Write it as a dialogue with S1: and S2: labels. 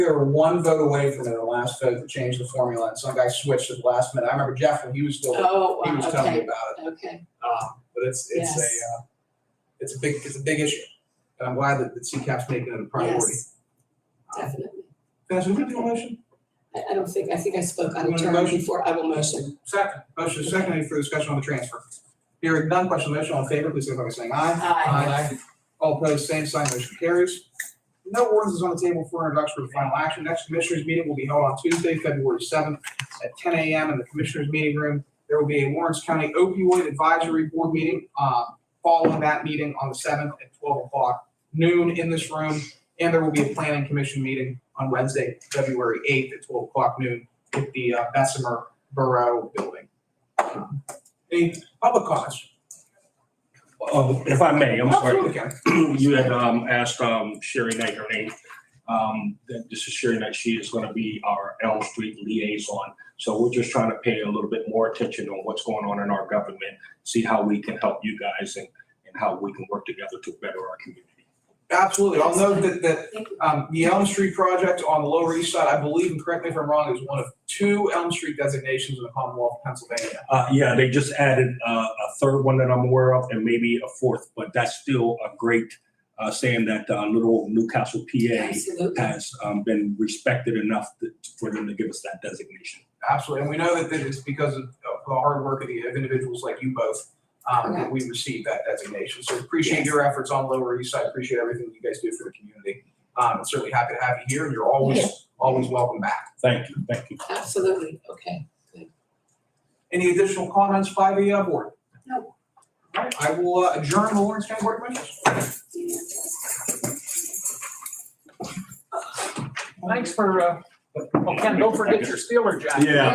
S1: We were one vote away from it, the last vote to change the formula, and some guy switched at the last minute. I remember Jeff, when he was still,
S2: Oh,
S1: he
S2: wow,
S1: was telling me
S2: okay,
S1: about it.
S2: okay,
S1: Um, but it's, it's a,
S2: Yes.
S1: uh, it's a big, it's a big issue. And I'm glad that, that CCAP's making it a priority.
S2: yes, definitely.
S1: Vanessa, would you do a motion?
S2: I, I don't think, I think I spoke
S1: You
S2: on a
S1: want a
S2: term
S1: motion?
S2: before, I will motion.
S1: Second, motion is second, any further discussion on the transfer? Hearing none, question on the motion, all in favor, please signify by saying aye.
S2: Aye.
S1: All opposed, same sign, motion carries. No ordinance is on the table for introduction or final action. Next commissioners meeting will be held on Tuesday, February seventh at ten AM in the commissioners meeting room. There will be a Lawrence County opioid advisory board meeting, uh, following that meeting on the seventh at twelve o'clock noon in this room. And there will be a planning commission meeting on Wednesday, February eighth at twelve o'clock noon at the uh, Bessemer Borough Building. Um, Any public comments?
S3: Oh, if I may, I'm sorry.
S1: Absolutely, Ken.
S3: You had um, asked um, Sherry Knight her name. Um, that This is Sherry Knight. She is going to be our Elm Street liaison. So we're just trying to pay a little bit more attention on what's going on in our government, see how we can help you guys and, and how we can work together to better our community.
S1: Absolutely. I'll note that, that
S2: Thank you.
S1: Um, the Elm Street project on the Lower East Side, I believe, and correct me if I'm wrong, is one of two Elm Street designations in the Commonwealth of Pennsylvania.
S3: Uh, Yeah, they just added uh, a third one that I'm aware of and maybe a fourth, but that's still a great uh, saying that uh, little Newcastle, PA
S2: Absolutely,
S3: has um, been respected enough that- for them to give us that designation.
S1: Absolutely, and we know that that it's because of of the hard work of the of individuals like you both, um, that we received that designation. So appreciate
S2: Yes.
S1: your efforts on Lower East Side, appreciate everything you guys do for the community. Um, and certainly happy to have you here, and you're always, always welcome back.
S3: Thank you, thank you.
S2: absolutely, okay.
S1: Any additional comments by the uh, board?
S2: No.
S1: All right, I will uh, adjourn the Lawrence County Board of Commissioners.
S4: Thanks for, uh, oh, Ken, don't forget your Steeler jacket.
S3: Yeah.